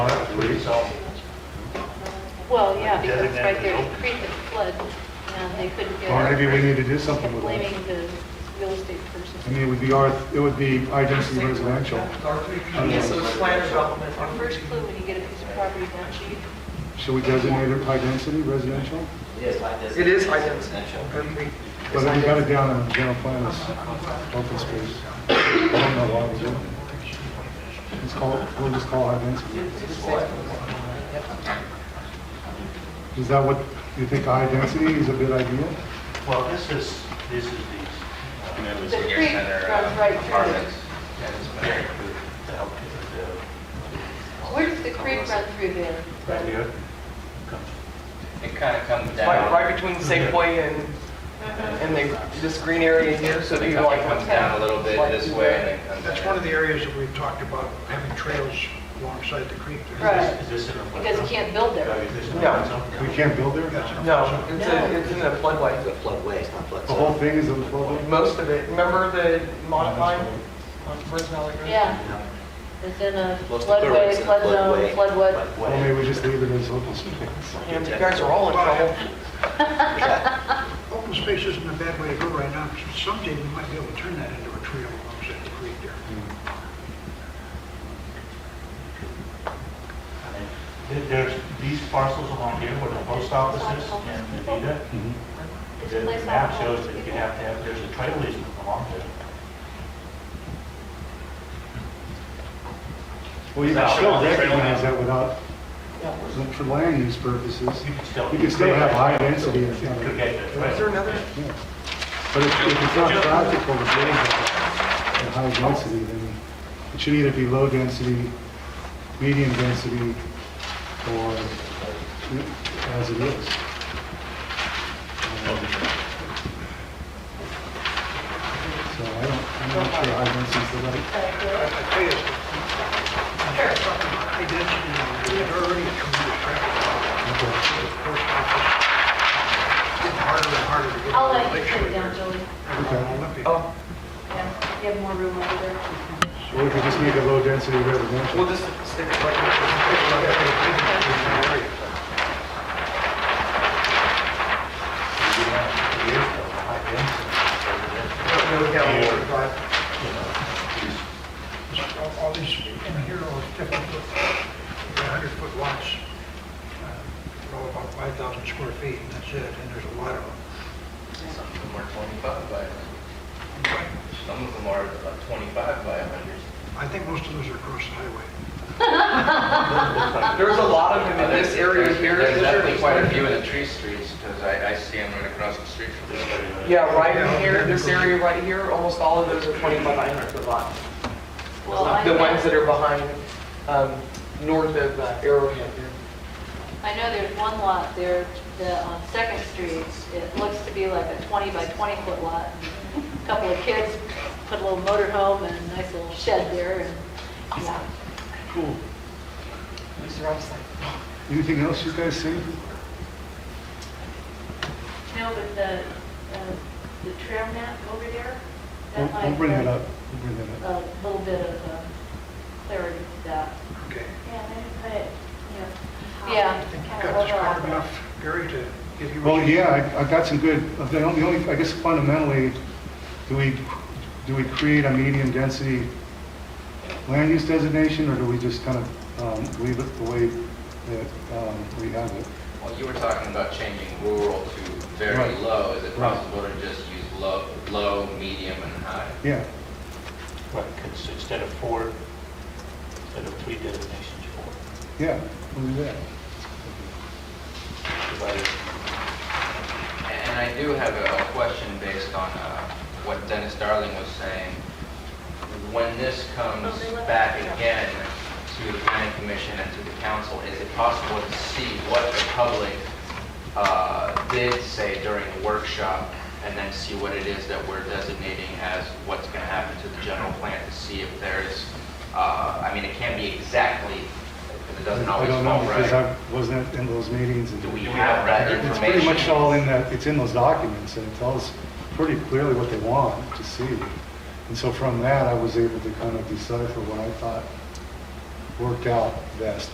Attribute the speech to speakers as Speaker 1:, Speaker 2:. Speaker 1: creek.
Speaker 2: Well, yeah, because
Speaker 1: Designated
Speaker 2: right there,
Speaker 1: as
Speaker 2: the
Speaker 1: open.
Speaker 2: creek had flooded, and they couldn't get
Speaker 3: Or
Speaker 2: out.
Speaker 3: maybe we need to do something with it.
Speaker 2: Blaming the real estate
Speaker 3: I
Speaker 2: person.
Speaker 3: mean, it would be our, it would be our density residential.
Speaker 4: Yes, so it's plan development.
Speaker 2: Our first clue when you get a piece of property, don't you?
Speaker 3: Should we designate it high density residential?
Speaker 5: It is like this.
Speaker 4: It is high density.
Speaker 5: Residential.
Speaker 3: But then we got it down in the general plan as open space. I don't know why we do it. Let's call, it- we'll just call it high density. Is that what, you think high density is a good idea?
Speaker 1: Well, this is, this is uh,
Speaker 6: And
Speaker 1: these,
Speaker 6: it was
Speaker 2: The
Speaker 6: senior
Speaker 2: creek
Speaker 6: center,
Speaker 2: runs
Speaker 6: uh,
Speaker 2: right through it.
Speaker 6: apartments.
Speaker 1: that is very good to help with
Speaker 2: Where does the creek run through there?
Speaker 1: the, right here. Comes
Speaker 6: It kind of comes
Speaker 4: Right,
Speaker 6: down.
Speaker 4: right between Safeway and, and the, this green area here, so
Speaker 6: So
Speaker 4: do
Speaker 6: it
Speaker 4: you like?
Speaker 6: comes down a little bit this way and then comes down.
Speaker 7: That's one of the areas that we've talked about, having trails alongside the creek. there.
Speaker 2: Right.
Speaker 1: Is this in a?
Speaker 2: Because you can't build there.
Speaker 1: Is this in a-
Speaker 4: No.
Speaker 3: We can't build there?
Speaker 7: That's-
Speaker 4: No, it's a, it's in a floodway.
Speaker 5: It's a floodway, it's not flood
Speaker 3: The
Speaker 5: zone.
Speaker 2: Uh-huh.
Speaker 3: whole thing is a little bit-
Speaker 4: Most of it, remember the modifying on Fresno Valley Road?
Speaker 2: Yeah,
Speaker 5: No.
Speaker 2: it's in a
Speaker 5: Most of the
Speaker 2: floodway,
Speaker 5: roads in
Speaker 2: flood zone,
Speaker 5: floodway,
Speaker 2: flood what?
Speaker 5: floodway.
Speaker 3: Well, maybe we just leave it as open space.
Speaker 4: And you guys are all in trouble.
Speaker 5: Yeah.
Speaker 7: Open space isn't a bad way to go right now, because someday we might be able to turn that into a trail alongside the creek there.
Speaker 1: There- There's these parcels along here where the post office is and the Vita.
Speaker 2: It's
Speaker 1: The
Speaker 2: a place
Speaker 1: map
Speaker 2: all
Speaker 1: shows that
Speaker 2: people-
Speaker 1: you have to have, there's a trail easement along there.
Speaker 3: Well, you can still recognize that without, for land use purposes.
Speaker 1: You can still.
Speaker 3: You can still have high density and stuff.
Speaker 1: Could get the
Speaker 4: Is there
Speaker 1: trail.
Speaker 4: another?
Speaker 3: But if if it's not practical to build at at high density, then it should either be low density, medium density, or as it is. So I don't, I'm not sure high density is the right,
Speaker 7: I I tell you, it's high density, we had already come to traffic,
Speaker 3: okay.
Speaker 7: the post office, it's getting harder and harder to get.
Speaker 2: I'll
Speaker 7: on
Speaker 2: let you
Speaker 7: Lake
Speaker 2: take it
Speaker 7: Shore
Speaker 2: down,
Speaker 7: there.
Speaker 2: Julie.
Speaker 7: And on Olympia.
Speaker 4: Oh,
Speaker 2: Yeah, you have more room over there.
Speaker 3: Or we could just make it low density
Speaker 4: we'll
Speaker 3: residential.
Speaker 4: just stick it right
Speaker 1: Years ago, high density.
Speaker 4: here. Don't go down the drive.
Speaker 7: All- All these, in here, all these different, 100-foot lots, uh, they're all about 5,000 square feet, and that's it, and there's a lot of them.
Speaker 6: Some of them are 25 by, some of them are about 25 by 100.
Speaker 7: I think most of those are across the highway.
Speaker 4: There's a lot of them in this area
Speaker 6: There's-
Speaker 4: here.
Speaker 6: There's
Speaker 4: Those are
Speaker 6: definitely
Speaker 4: just-
Speaker 6: quite a few in the tree streets because I, I see them right across the street from this.
Speaker 4: Yeah, right in here, this area right here, almost all of those are 20 by 900 foot lots.
Speaker 2: Well, I
Speaker 4: The
Speaker 2: know-
Speaker 4: ones that are behind, um, north of uh, Arrowhead here.
Speaker 2: I know there's one lot there, the, on Second Street, it looks to be like a 20 by 20 foot lot. A Couple of kids put a little motor home and a nice little shed there, and, yeah.
Speaker 3: Cool.
Speaker 4: These are all just like,
Speaker 3: Anything else you guys see?
Speaker 2: No, but the, uh, the trail map over there,
Speaker 3: We'll
Speaker 2: that might...
Speaker 3: we'll bring that up. We'll bring that up.
Speaker 2: A little bit of uh, clarity to that.
Speaker 7: Okay.
Speaker 8: Yeah, then put it, you know.
Speaker 2: Yeah.
Speaker 7: I think you've got this covered enough, Gary, to give you... what
Speaker 3: Well,
Speaker 7: you-
Speaker 3: yeah, I I got some good, the only, the only- I guess fundamentally, do we, do we create a medium density land use designation, or do we just kind of um, leave it the way that um, we have it?
Speaker 6: Well, you were talking about changing rural to very
Speaker 3: Right.
Speaker 6: low. Is it
Speaker 3: Right.
Speaker 6: possible to just use low, low, medium, and high?
Speaker 3: Yeah,
Speaker 1: Right, 'cause instead of four, instead of three designations, four.
Speaker 3: yeah, we'll do that.
Speaker 1: Divided.
Speaker 6: And I do have a a question based on uh, what Dennis Darling was saying. When this comes back again to the planning commission and to the council, is it possible to see what the public uh, did say during the workshop and then see what it is that we're designating as what's going to happen to the general plan to see if there's, uh, I mean, it can't be exactly, because it doesn't
Speaker 3: I
Speaker 6: always
Speaker 3: don't know,
Speaker 6: fall
Speaker 3: because
Speaker 6: right.
Speaker 3: I wasn't in those meetings. and-
Speaker 6: Do we have that
Speaker 3: It's
Speaker 6: information?
Speaker 3: pretty much all in that, it's in those documents, and it tells pretty clearly what they want to see. And so from that, I was able to kind of decipher what I thought worked out best.